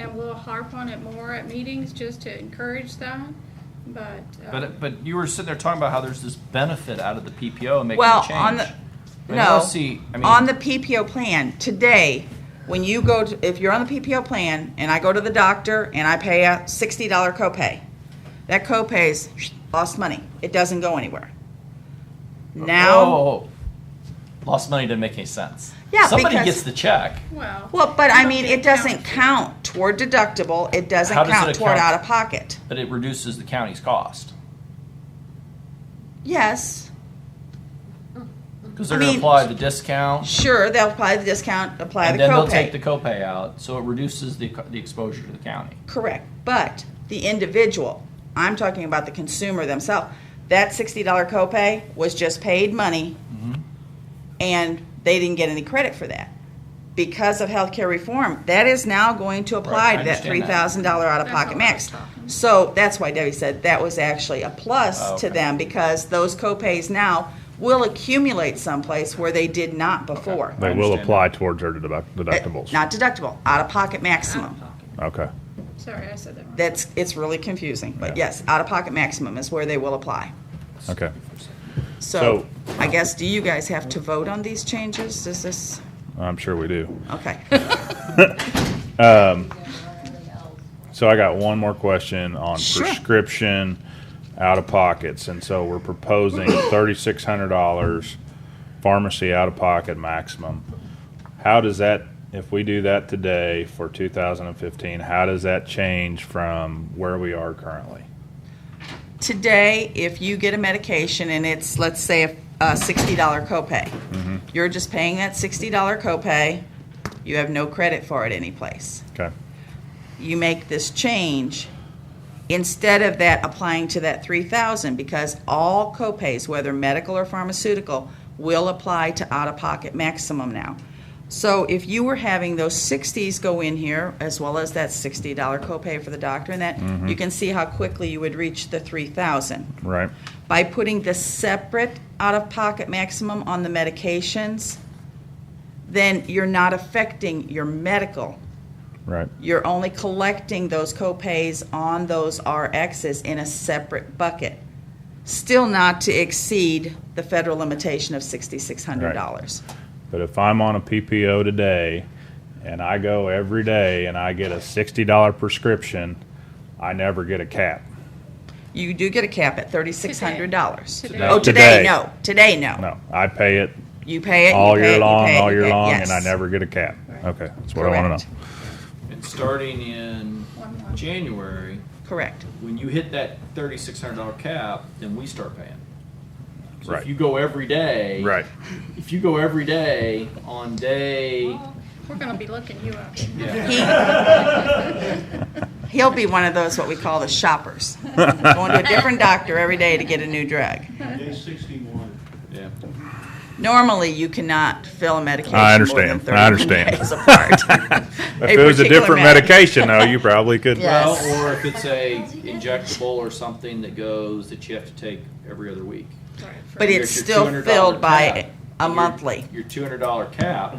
I will harp on it more at meetings just to encourage that, but. uh, But, but you were sitting there talking about how there's this benefit out of the PPO and making a Well, change. on the, I mean, I don't no, see- I mean- on the PPO plan, today, when you go, to if you're on the PPO plan, and I go to the doctor, and I pay a sixty dollar copay, that copay's lost money, it doesn't go anywhere. Now, Oh, lost money didn't make any sense. Yeah, Somebody because- gets the check. Well. well, but I don't mean, think it doesn't counts. count toward deductible, it doesn't How does count it toward account- out of pocket, But it reduces the county's cost. yes. Because they're I going to mean- apply the discount, Sure, they'll apply the discount, apply and the then they'll copay. take the copay out, so it reduces the, co- the exposure to the county. Correct, but the individual, I'm talking about the consumer themselves, that sixty dollar copay was just paid money, Mm-hmm. and they didn't get any credit for that. Because of healthcare reform, that is now going to Right, I apply to that three understand that. thousand dollar out-of-pocket That's max. what I was talking. So that's why Debbie said that was actually a Oh, plus okay. to them, because those copays now will accumulate someplace where they did not before. I They will understand apply towards their deduct- Uh, deductibles. Not deductible, out-of-pocket maximum. Okay. Sorry, I said that wrong. That's, it's really confusing, but Yeah. yes, out-of-pocket maximum is where they will apply. Okay. So, I guess, do you guys have to vote on these changes? Is this, I'm sure we do. okay. So I got one more question on Sure. prescription out of pockets. And so we're proposing $3,600 pharmacy out of pocket maximum. How does that, if we do that today for 2015, how does that change from where we are currently? Today, if you get a medication and it's, let's say, a- a sixty dollar copay, you're just paying that sixty dollar copay, you have no credit for it anyplace. Okay. you make this change instead of that applying to that 3000 because all copays whether medical or pharmaceutical will apply to out of pocket maximum now so if you were having those 60s go in here as well as that $60 copay for the doctor and that you can see how quickly you would reach the 3000 Right. by putting the separate out-of-pocket maximum on the medications then you're not affecting your medical Right. you're only collecting those copays on those RXs in a separate bucket, still not to exceed the federal limitation of sixty-six hundred dollars. But if I'm on a PPO today and I go every day and I get a $60 prescription, I never get a cap. You do get a cap at thirty-six hundred dollars. Today. Oh, Today. today, no, today, no. No, I pay it You pay it, you all pay it, year you long, pay it, all you year pay it. long, Yes. and I never get a cap. Okay, that's what I want Correct. to know. And starting in One more. January, Correct, when you hit that thirty-six hundred dollar cap, then we start paying. So Right. if you go every day, If you go every day on day, Well, We're gonna be looking you up. yeah, he'll be one of those what we call the shoppers, going to a different doctor every day to get a new drug. Day sixty-one. yeah. Normally, you cannot fill a medication I more than understand. 30 I understand. days apart. If it was a particular different med- medication, though, you probably could. Yeah. Well, Yes. or if it's a injectable or something that goes that you have to take every other week. But Here's it's your still $200 filled by cap. a Your- monthly. Your two hundred dollar cap.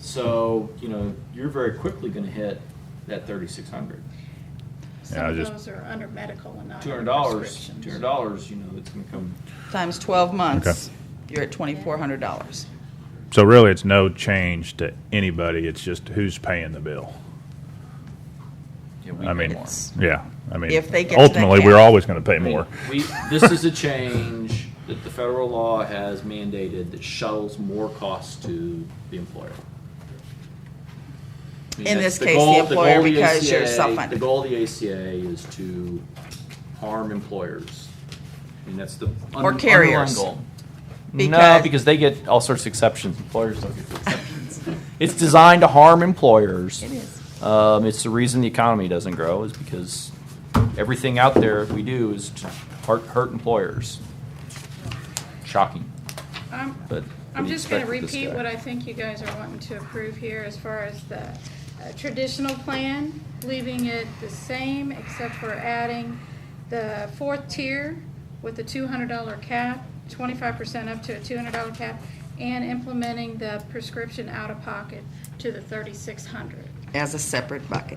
So you know you're very quickly going to hit that thirty six hundred. Yeah, I Some of just- those are under medical and not Two under hundred dollars. prescriptions. Two hundred dollars. You know it's going to come. Times twelve months, you're at twenty-four hundred dollars. So really, it's no change to anybody. It's just who's paying the bill. Yeah, we I pay mean, more. yeah. I mean, If they get to that ultimately, we're cap. always going to pay more. We, this is a change that the federal law has mandated that shuttles more costs to the employer. I mean, In that's this case, the goal- goal employer of the because you're ACA self-funded. The goal of the ACA is to harm employers. I mean, that's the. un- Or carriers. underlying goal. No, Because- because they get all sorts of exceptions. Employers don't get the exceptions. It's designed to harm employers. is. Um, it's the reason the economy doesn't grow is because everything out there we do is to hurt, hurt employers. Shocking, I'm- but. I'm we just going to expect this repeat guy. what I think you guys are wanting to approve here as far as the uh, traditional plan, leaving it the same except for adding the fourth tier with the $200 cap, 25% up to a $200 cap, and implementing the prescription out-of-pocket to the 3,600. As a separate bucket.